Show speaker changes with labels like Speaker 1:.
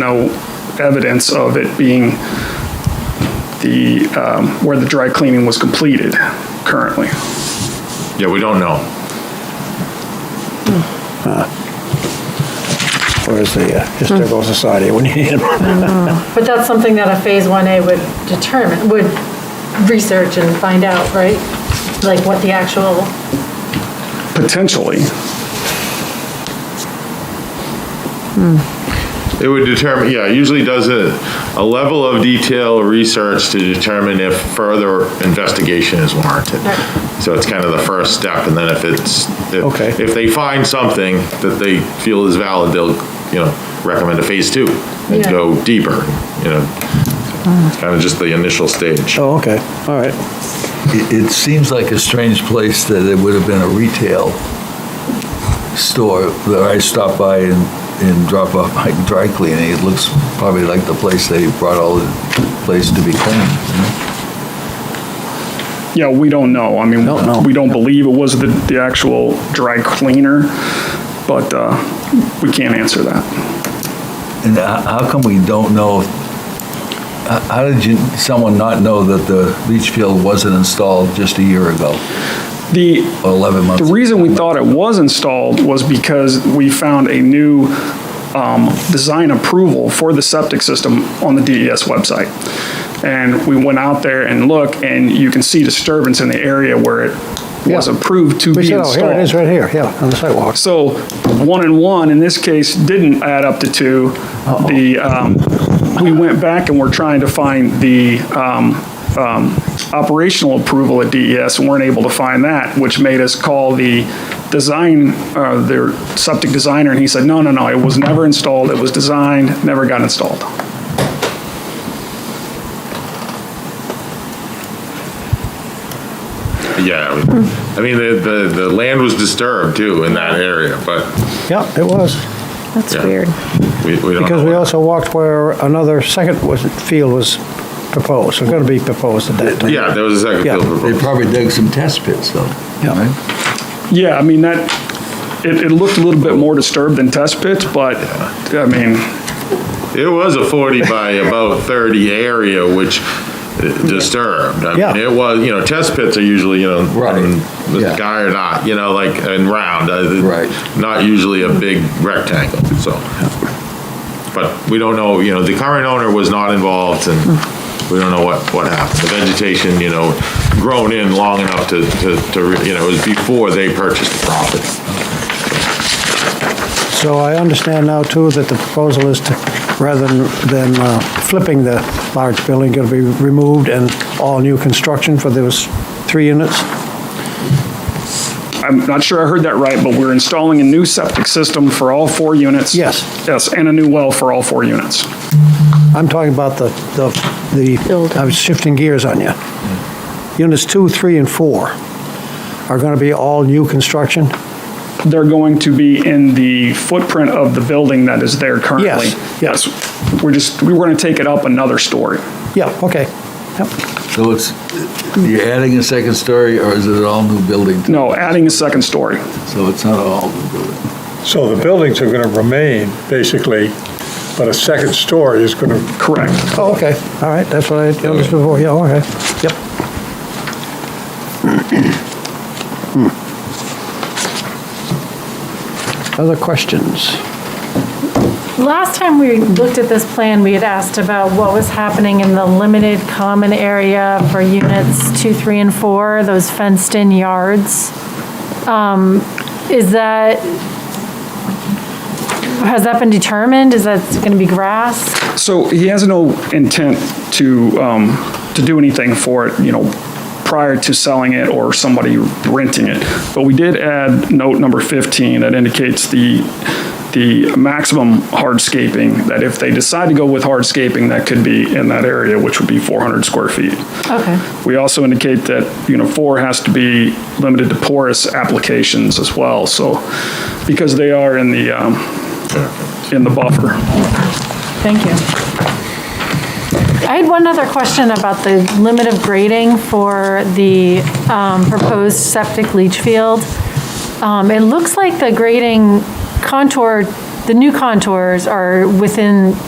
Speaker 1: no evidence of it being the, um, where the dry cleaning was completed currently.
Speaker 2: Yeah, we don't know.
Speaker 3: Where's the uh, Historical Society when you need them?
Speaker 4: But that's something that a Phase 1A would determine, would research and find out, right? Like what the actual,
Speaker 1: Potentially,
Speaker 2: It would determine, yeah, it usually does a, a level of detail research to determine if further investigation is warranted.
Speaker 4: Right.
Speaker 2: So it's kind of the first step, and then if it's,
Speaker 3: Okay.
Speaker 2: if, if they find something that they feel is valid, they'll, you know, recommend a phase two and
Speaker 4: Yeah.
Speaker 2: go deeper, you know. It's kind of just the initial stage.
Speaker 3: Oh, okay, all right.
Speaker 5: It, it seems like a strange place that it would have been a retail store that I stopped by and, and drop off my dry cleaning. It looks probably like the place they brought all the place to be cleaned. you know?
Speaker 1: yeah, we don't know. I mean,
Speaker 3: Don't know.
Speaker 1: we don't believe it was the, the actual dry cleaner, but uh, we can't answer that.
Speaker 5: And ho- how come we don't know, how how did you, someone not know that the leach field wasn't installed just a year ago,
Speaker 1: The,
Speaker 5: or 11 months?
Speaker 1: The reason we thought it was installed was because we found a new um, design approval for the septic system on the DES website. And we went out there and looked, and you can see disturbance in the area where it was
Speaker 3: Yeah.
Speaker 1: approved to
Speaker 3: We
Speaker 1: be
Speaker 3: said, oh, here it is,
Speaker 1: installed.
Speaker 3: right here, yeah, on the sidewalk.
Speaker 1: So one and one, in this case, didn't add up to two. The, um, we went back and we're trying to find the um, um, operational approval at DES and weren't able to find that, which made us call the design, uh, their septic designer, and he said, no, no, no, it was never installed, it was designed, never got installed.
Speaker 2: Yeah, I mean, the, the, the land was disturbed too in that area, but
Speaker 3: Yeah, it was,
Speaker 6: That's
Speaker 2: Yeah.
Speaker 6: weird.
Speaker 2: we, we don't
Speaker 3: because we
Speaker 2: know.
Speaker 3: also walked where another second was, field was proposed, was gonna be proposed at that time.
Speaker 2: Yeah, there was a second
Speaker 3: Yeah.
Speaker 2: field
Speaker 5: They
Speaker 2: proposal.
Speaker 5: probably dug some test pits though,
Speaker 3: Yeah.
Speaker 5: right?
Speaker 1: Yeah, I mean, that, it, it looked a little bit more disturbed than test pits, but, I mean,
Speaker 2: It was a 40 by about 30 area, which uh, disturbed. I
Speaker 3: Yeah.
Speaker 2: mean, it was, you know, test pits are usually, you know,
Speaker 5: Right.
Speaker 2: um,
Speaker 5: Yeah.
Speaker 2: Mr. Guy or not, you know, like, and round. uh,
Speaker 5: Right.
Speaker 2: Not usually a big rectangle, so. But we don't know, you know, the current owner was not involved, and we don't know what, what happened. The vegetation, you know, grown in long enough to, to, to re- you know, it was before they purchased the property.
Speaker 3: So I understand now too that the proposal is to, rather than than, uh, flipping the large building, gonna be removed and all new construction for those three units?
Speaker 1: I'm not sure I heard that right, but we're installing a new septic system for all four units.
Speaker 3: Yes.
Speaker 1: Yes, and a new well for all four units.
Speaker 3: I'm talking about the, the, the, I was shifting gears on you. Units two, three, and four are going to be all new construction?
Speaker 1: They're going to be in the footprint of the building that is there currently.
Speaker 3: Yes, yes.
Speaker 1: Yes, we're just, we were going to take it up another story.
Speaker 3: Yeah, okay. Yep.
Speaker 5: So it's, you're adding a second story, or is it an all-new building?
Speaker 1: No, adding a second story.
Speaker 5: So it's not all new building?
Speaker 7: So the buildings are going to remain, basically, but a second story is going to,
Speaker 1: Correct.
Speaker 3: Oh, okay, all right, that's what I understood before, yeah, all right, yep. Hmm. Other questions?
Speaker 4: last time we looked at this plan, we had asked about what was happening in the limited common area for units two, three, and four, those fenced-in yards. Um, Is that, has that been determined? Is that going to be grass?
Speaker 1: So he has no intent to, um, to do anything for it, you know, prior to selling it or somebody renting it. But we did add note number 15 that indicates the, the maximum hardscaping, that if they decide to go with hardscaping, that could be in that area, which would be 400 square feet.
Speaker 4: Okay.
Speaker 1: We also indicate that, you know, four has to be limited to porous applications as well, so, because they are in the, um, in the buffer.
Speaker 4: Thank you. I had one other question about the limit of grading for the um, proposed septic leach field. Um, It looks like the grading contour, the new contours are within